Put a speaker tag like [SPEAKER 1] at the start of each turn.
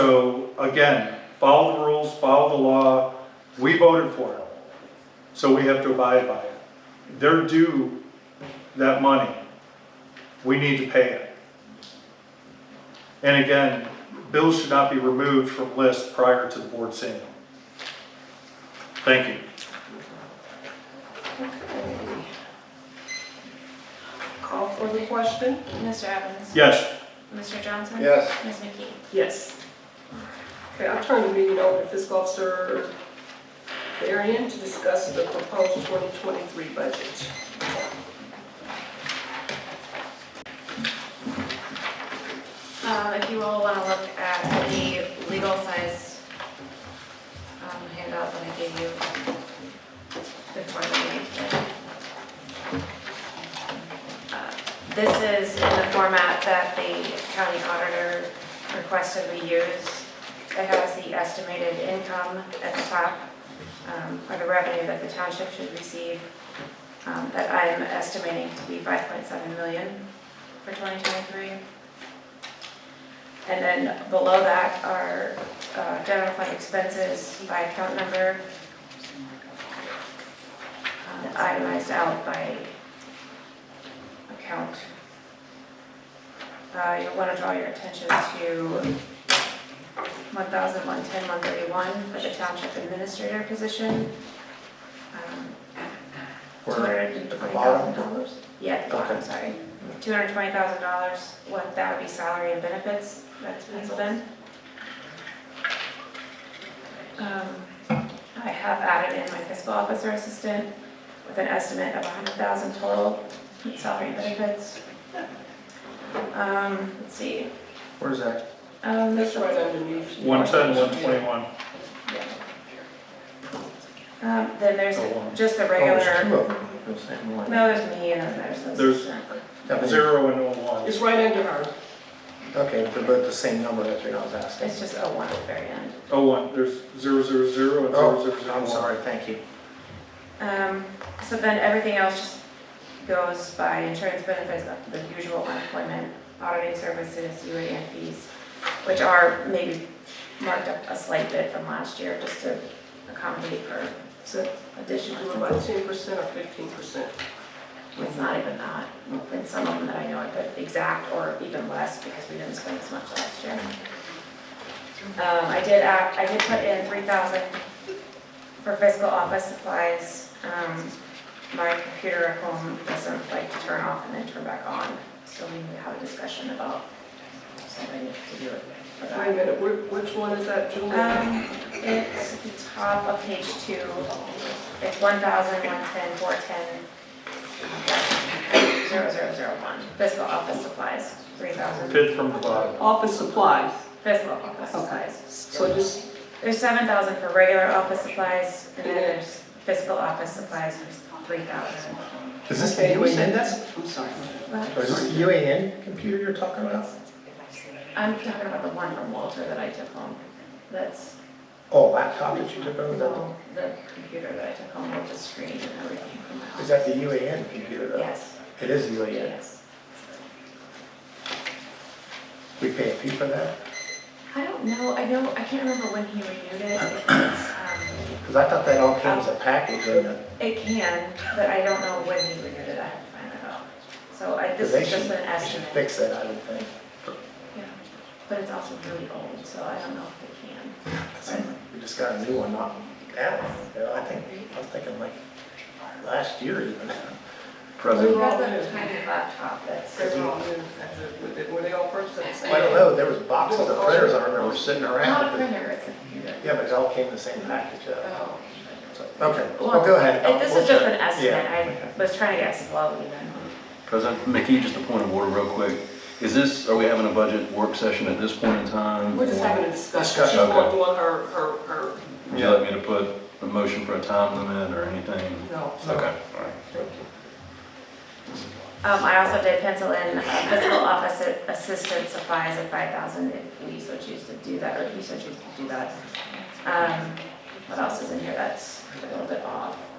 [SPEAKER 1] So again, follow the rules, follow the law. We voted for it. So we have to abide by it. They're due that money. We need to pay it. And again, bills should not be removed from list prior to the board seeing them. Thank you.
[SPEAKER 2] Call for the question?
[SPEAKER 3] Mr. Evans?
[SPEAKER 1] Yes,
[SPEAKER 3] Mr. Johnson?
[SPEAKER 4] Yes.
[SPEAKER 3] Ms. McKee?
[SPEAKER 2] Yes. Okay, I'll turn the meeting over to fiscal officer Varian to discuss the proposed 2023 budget.
[SPEAKER 3] Um, if you all want to look at the legal size um, handout that I gave you before the meeting. Uh, This is in the format that the county auditor requested we use. It has the estimated income at the top, um, or the revenue that the township should receive, um, that I'm estimating to be 5.7 million for 2023. And then below that are uh, general fund expenses by account number. um, Itemized out by account. Uh, You'll want to draw your attention to 1,110, 131 for the township administrator position. Um, $220,000. Yeah, at the bottom, sorry. Two hundred twenty thousand dollars, what, that would be salary and benefits, that's penciled in. Um, I have added in my fiscal officer assistant with an estimate of a hundred thousand total in salary and benefits. Um, let's see,
[SPEAKER 4] Where's that?
[SPEAKER 3] um,
[SPEAKER 2] That's
[SPEAKER 3] this
[SPEAKER 2] right underneath.
[SPEAKER 1] 110, 121.
[SPEAKER 3] um, then there's
[SPEAKER 4] Oh, wow.
[SPEAKER 3] just the
[SPEAKER 4] Oh, there's two
[SPEAKER 3] regular,
[SPEAKER 4] of them. You're saying one.
[SPEAKER 3] no, there's me and then there's this.
[SPEAKER 1] There's-
[SPEAKER 4] That means-
[SPEAKER 1] Zero and oh one.
[SPEAKER 2] It's right under her.
[SPEAKER 4] Okay, they're both the same number, that's what I was asking.
[SPEAKER 3] It's just a one at the very end.
[SPEAKER 1] Oh, one, there's zero, zero, zero and zero, zero,
[SPEAKER 4] Oh,
[SPEAKER 1] zero,
[SPEAKER 4] I'm
[SPEAKER 1] one.
[SPEAKER 4] sorry, thank you.
[SPEAKER 3] Um, so then everything else just goes by insurance benefits, the usual unemployment, auditing services, UA and fees, which are maybe marked up a slight bit from last year, just to accommodate for
[SPEAKER 2] So
[SPEAKER 3] additional.
[SPEAKER 2] do about 10% or 15%.
[SPEAKER 3] It's not even that, and some of them that I know are the exact or even less because we didn't spend as much last year. Um, I did act, I did put in three thousand for fiscal office supplies. Um, my computer at home doesn't like to turn off and then turn back on, so we need to have a discussion about something to do with for
[SPEAKER 2] Wait a
[SPEAKER 3] that.
[SPEAKER 2] minute, wh- which one is that, Julie?
[SPEAKER 3] Um, it's the top of page two, it's one thousand, one ten, four ten, zero, zero, zero, one, fiscal office supplies, three thousand,
[SPEAKER 1] Pit from the bottom.
[SPEAKER 2] Office supplies.
[SPEAKER 3] fiscal office supplies.
[SPEAKER 2] So just,
[SPEAKER 3] There's seven thousand for regular office supplies, and then there's fiscal office supplies for three thousand.
[SPEAKER 4] Is this the
[SPEAKER 2] okay, you said
[SPEAKER 4] UAN?
[SPEAKER 2] that's, I'm sorry.
[SPEAKER 4] Is this the UAN computer you're talking about?
[SPEAKER 3] I'm talking about the one from Walter that I took home, that's,
[SPEAKER 4] Oh, laptop that you took over, that-
[SPEAKER 3] no, the computer that I took home with the screen and everything from my
[SPEAKER 4] is
[SPEAKER 3] house.
[SPEAKER 4] that the UAN computer though?
[SPEAKER 3] Yes,
[SPEAKER 4] It is UAN.
[SPEAKER 3] yes.
[SPEAKER 4] We pay a fee for that?
[SPEAKER 3] I don't know, I know, I can't remember when he renewed it. It was, um,
[SPEAKER 4] Because I thought that all came as a package and the
[SPEAKER 3] It can, but I don't know when he renewed it, I have to find that out. So I, this
[SPEAKER 4] they
[SPEAKER 3] is just
[SPEAKER 4] should,
[SPEAKER 3] an
[SPEAKER 4] they should
[SPEAKER 3] estimate.
[SPEAKER 4] fix that, I would think.
[SPEAKER 3] Yeah. But it's also really old, so I don't know if they can.
[SPEAKER 4] We just got a new one, not that one. You know, I think, I was thinking like last year even.
[SPEAKER 3] We
[SPEAKER 2] President.
[SPEAKER 3] got the tiny laptop that's,
[SPEAKER 2] They're all new. Were they all purchased at the same
[SPEAKER 4] I don't know, there was boxes of printers I remember sitting
[SPEAKER 3] not a
[SPEAKER 4] around. but-
[SPEAKER 3] printer, it's a computer.
[SPEAKER 4] Yeah, but it all came in the same package. uh,
[SPEAKER 3] Oh.
[SPEAKER 4] so- Okay, well, go ahead.
[SPEAKER 3] It- This is just an estimate,
[SPEAKER 4] Yeah,
[SPEAKER 3] I was trying to guess slowly then.
[SPEAKER 5] President McKee, just a point of order real quick. Is this, are we having a budget work session at this point in time?
[SPEAKER 2] We're just having a discussion. She's
[SPEAKER 5] Okay.
[SPEAKER 2] going through her, her, her,
[SPEAKER 5] Would you like me to put a motion for a time limit or anything?
[SPEAKER 2] no.
[SPEAKER 5] Okay, all right.
[SPEAKER 3] Um, I also did pencil in uh, fiscal office assistant supplies of five thousand if we so choose to do that, or if you so choose to do that. Um, what else is in here that's a little bit off?